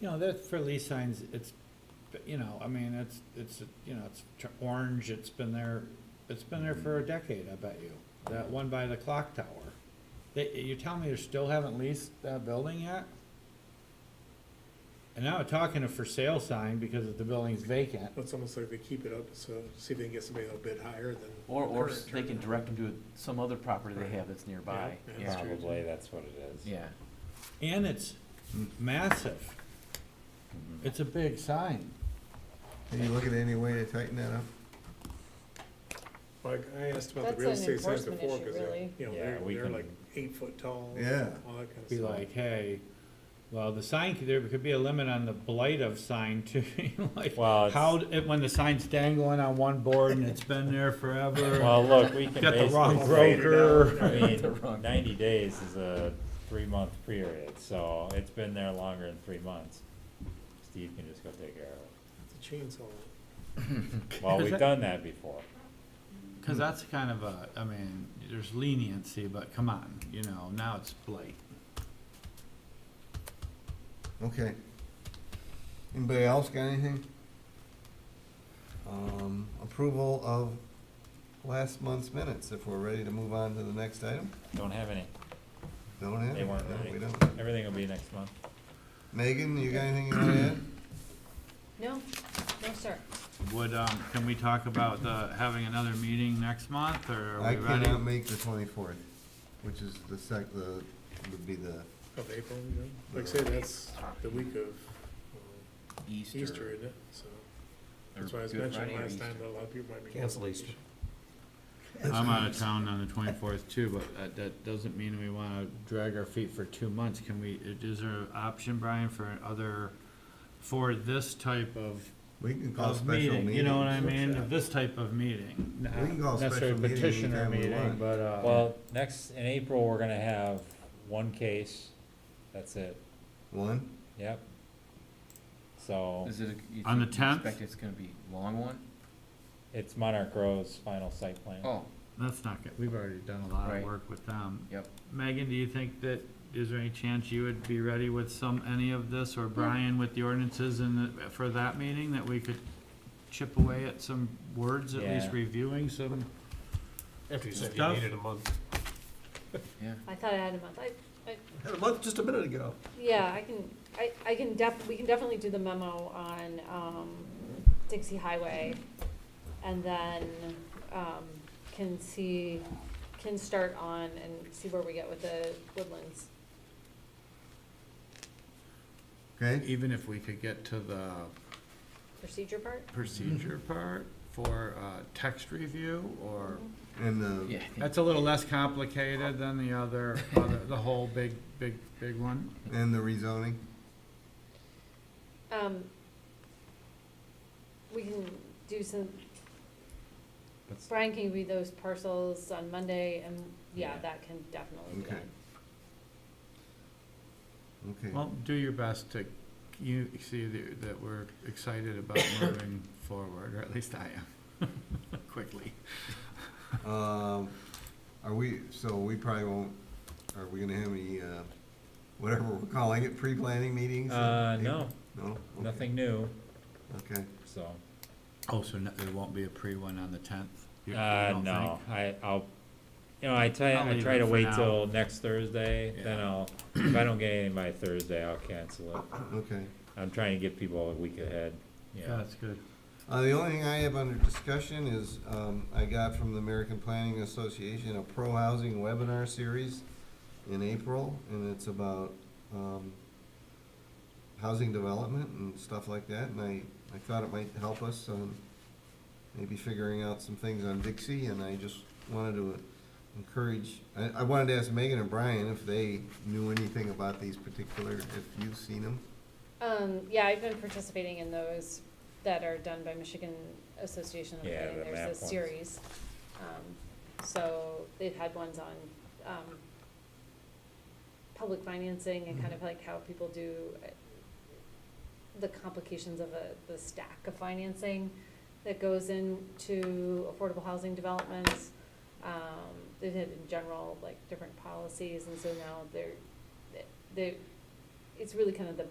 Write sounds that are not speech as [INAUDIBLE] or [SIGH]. You know, that, for Lee signs, it's, you know, I mean, it's, it's, you know, it's tr- orange, it's been there, it's been there for a decade, I bet you. That one by the clock tower. They, you tell me you still haven't leased that building yet? And now we're talking a for sale sign because the building's vacant. It's almost like they keep it up, so see if they can get somebody that'll bid higher than. Or, or current they can turnover. direct them to some other property they Right. have that's nearby. Yeah, yeah, that's Yeah, true. Probably, that's what it is. yeah. And it's m- massive. It's a big sign. Can you look at any way to tighten that up? Like, I asked about That's the real an estate signs enforcement before, issue, because they're, really. you know, Yeah, they're, we they're can- like eight foot tall. Yeah. All that kind of stuff. Be like, hey, well, the sign, could- there could be a limit on the blight of sign [LAUGHS] too. Like, Well, it's- how, d- when the sign's dangling on one board and it's been there forever. Well, look, we can Got the wrong basically say, broker. I The wrong- mean, ninety days is a three-month period, so it's been there longer than three months. Steve can just go take [LAUGHS] care of It's a chainsaw. it. Well, we've done that before. Cause that's kind of a, I mean, there's leniency, but come on, you know, now it's blight. Okay. Anybody else got anything? Um, approval of last month's minutes, if we're ready to move on to the next item? Don't have any. Don't have? They weren't No, ready. We don't. Everything will be next month. Megan, you got anything you wanna add? No, no, sir. Would, um, can we talk about the, having another meeting next month or are I we ready? cannot make the twenty-fourth, which is the sec, the, would be the, Of April, you know, like I say, that's the week of um, Easter, isn't it? So, that's why I was mentioning last time that a lot of people might be. Cancel Easter. I'm out of town on the twenty-fourth too, but that, that doesn't mean we wanna drag our feet for two months. Can we, is there an option, Brian, for other, for this type of, we can call of special meeting? meeting. You know what I mean? mean? This type of meeting. not We can call a special necessarily meeting petitioner anytime we meeting, want. But, uh. Well, next, in April, we're gonna have one case. That's it. One? Yep. So, Is it, a- you On the think- you 10th? expect it's gonna be a long one? it's Monarch Grove's final site plan. Oh, That's not good. We've already done a lot of Right. work with them. Yep. Megan, do you think that, is there any chance you would be ready with some, any of this, or Brian with the ordinances and, the- for that meeting, that we could chip away at some words, at least Yeah. reviewing some? After you said you Stuff. needed a month. yeah. I thought I had a month. I, Had a month just a minute ago. yeah, I can, I, I can def, we can definitely do the memo on, um, Dixie Highway. And then, um, can see, can start on and see where we get with the woodlands. Okay, Even if we could get to the Procedure part? procedure part for, uh, text review, or, and the, Yeah, I think- that's a little less complicated than the other, other, the whole big, big, big one. and the rezoning? Um, we can do some, That's- Brian can read those parcels on Monday and, yeah, Yeah. that can definitely be Okay. done. Okay. Well, do your best to, you see that that we're excited [COUGHS] about moving forward, or at least I am, [LAUGHS] quickly. Um, are we, so we probably won't, are we gonna have any, uh, whatever we're calling it, pre-planning meetings? in Uh, April? no, No? Okay, nothing new, Okay, so. Oh, so no- there won't be a pre-one on the tenth? Uh, no, I, I'll, you know, I try, I'll I leave try it to for wait now. till next Thursday, then Yeah. I'll, if I don't get anything by Thursday, I'll cancel it. okay. I'm trying to get people a week ahead, Yeah, yeah. that's good. Uh, the only thing I have under discussion is, um, I got from the American Planning Association a pro-housing webinar series in April, and it's about, um, housing development and stuff like that, and I, I thought it might help us on maybe figuring out some things on Dixie, and I just wanted to encourage, I, I wanted to ask Megan and Brian if they knew anything about these particular, if you've seen them. Um, yeah, I've been participating in those that are done by Michigan Association of Yeah, Planning, the map there's a ones. series. Um, So they've had ones on, um, public financing and Mm-hmm. kind of like how people do uh, the complications of a, the stack of financing that goes into affordable housing developments. Um, they had in general, like, different policies, and so now they're, they, it's really kind of the